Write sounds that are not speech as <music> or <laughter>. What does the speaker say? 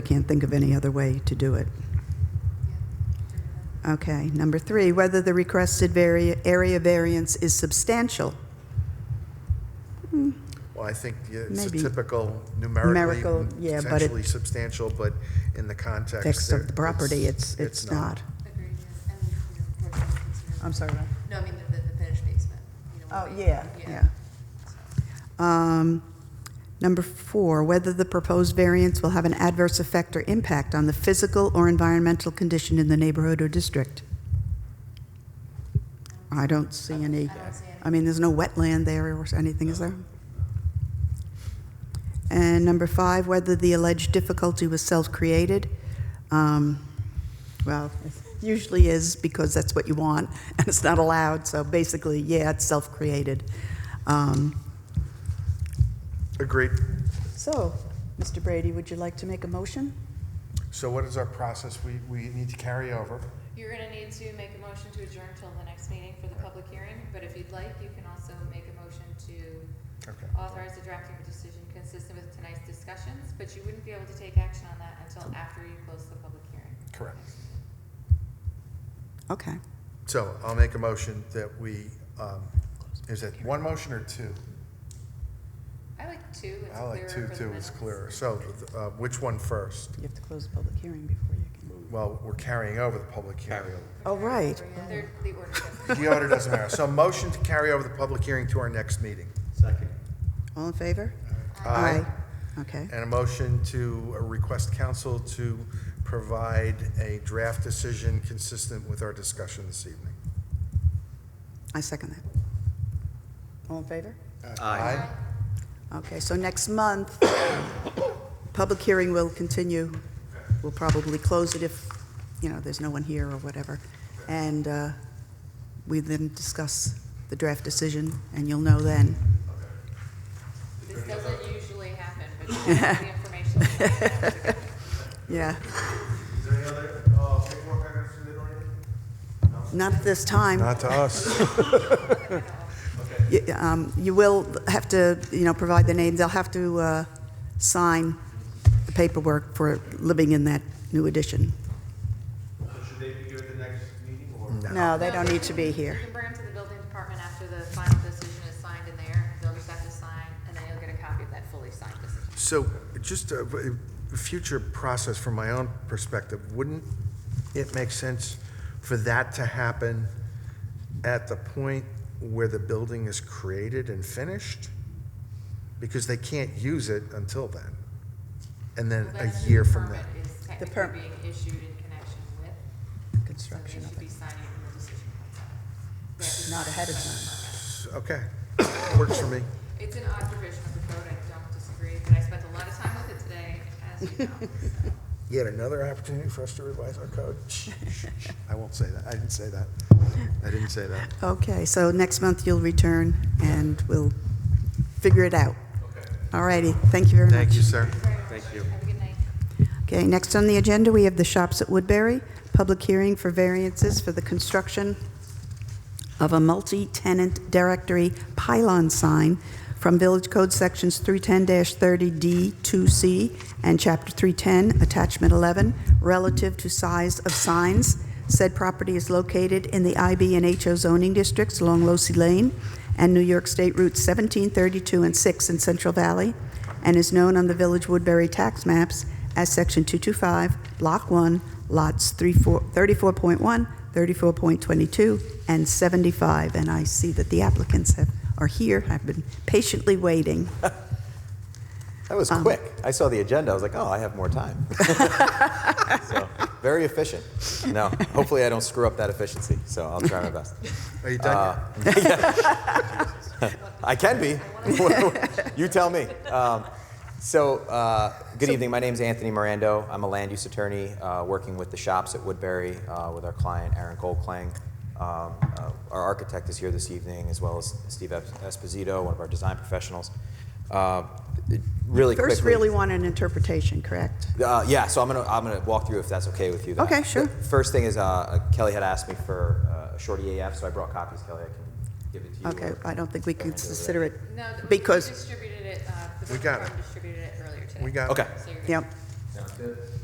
Can't think of any other way to do it. Okay, number three, whether the requested vari- area variance is substantial. Well, I think yeah, it's a Maybe. typical Numerical, numerically, yeah, but it- potentially substantial, but in the context. Text there, of the property, it's, it's not. Agreed, yeah, and, you know, more than considered. I'm sorry. No, I mean, the, the- the finished basement, you know. Oh, would be- yeah, yeah. So, Um, Number four, whether the proposed variance will have an adverse effect or impact on the physical or environmental condition in the neighborhood or district. I don't see any, I mean, there's no wetland there or anything, is there? And number five, whether the alleged difficulty was self-created. Um, Well, it usually is because that's what you want, <laughs> and it's not allowed, so basically, yeah, it's self-created. Um, Agreed. so, Mr. Brady, would you like to make a motion? So what is our process? We, we need to carry over. You're gonna need to make a motion to adjourn till the next meeting for the public hearing, but if you'd like, you can also make a motion to Okay. authorize the drafting of a decision consistent with tonight's discussions, but you wouldn't be able to take action on that until after you close the public hearing. Correct. Okay. So I'll make a motion that we, um, is it one motion or two? I like two, it's I like two, clearer for the two is minutes. clearer. So, uh, which one first? You have to close the public hearing before you can. Well, we're carrying over the public hearing. Oh, right. They're, the order doesn't. The order doesn't matter. So motion to carry over the public hearing to our next meeting. Second. All in favor? Aye. Okay. And a motion to uh, request council to provide a draft decision consistent with our discussion this evening. I second that. All in favor? Aye. Okay, so next month, public hearing will continue. We'll probably close it if, you know, there's no one here or whatever. And uh, we then discuss the draft decision, and you'll know then. This doesn't usually happen, <laughs> but you have the information. Yeah, Is there any other uh, paperwork items to the order? not at this time. Not to us. You um, you will have to, you know, provide the names. I'll have to uh, sign the paperwork for living in that new addition. So should they be here at the next meeting or? No, they don't need to be here. You can bring them to the building department after the final decision is signed in there, they'll just have to sign, and then you'll get a copy of that fully signed decision. So just a a future process from my own perspective, wouldn't it make sense for that to happen at the point where the building is created and finished? Because they can't use it until then. And then Well, a then the year from then. Permit is per- technically being issued in connection with, so they Construction should of be it, signing it when the decision comes out. not ahead of time. Okay, works for me. It's an odd provision of the code, I don't disagree, but I spent a lot of time with it today, as you know, so. Yet another opportunity for us to revise our code. Shh, shh, shh. I won't say that. I didn't say that. I didn't say that. Okay, so next month you'll return, and we'll figure it out. All righty, thank you very much. Thank you, sir. Thank you. Have a good night. Okay, next on the agenda, we have the Shops at Woodbury, public hearing for variances for the construction of a multi-tenant directory pylon sign from Village Code Sections 310-30D2C and Chapter 310, Attachment 11, relative to size of signs. Said property is located in the IB and HO zoning districts along Losey Lane and New York State Routes 17, 32, and 6 in Central Valley, and is known on the Village Woodbury tax maps as Section 225, Block 1, Lots 34 34.1, 34.22, and 75. And I see that the applicants have, are here, have been patiently waiting. That was Uh-huh. quick. I saw the agenda. I was like, oh, I have more time. <laughs> <laughs> so, very efficient. No, hopefully I don't screw up that efficiency. So I'll try my best. Are you done? yet? I can be. you tell me. Um, so, uh, good evening. My name is Anthony Mirando. I'm a land use attorney uh, working with the shops at Woodbury uh, with our client, Aaron Goldklang. Um, uh, our architect is here this evening, as well as Steve Esposito, one of our design professionals. Uh, really First, quickly- really want an interpretation, correct? Uh, yeah, so I'm gonna I'm gonna walk through if that's okay with you. then. Okay, sure. The first thing is uh, Kelly had asked me for uh, a short EAF, so I brought copies. Kelly, I can give it to you. Okay, or- I don't think we can consider it, <laughs> No, th- we because, distributed it, uh, the We building got it. department distributed it earlier today. We got it. Okay. So you're good. yep, Sounds good.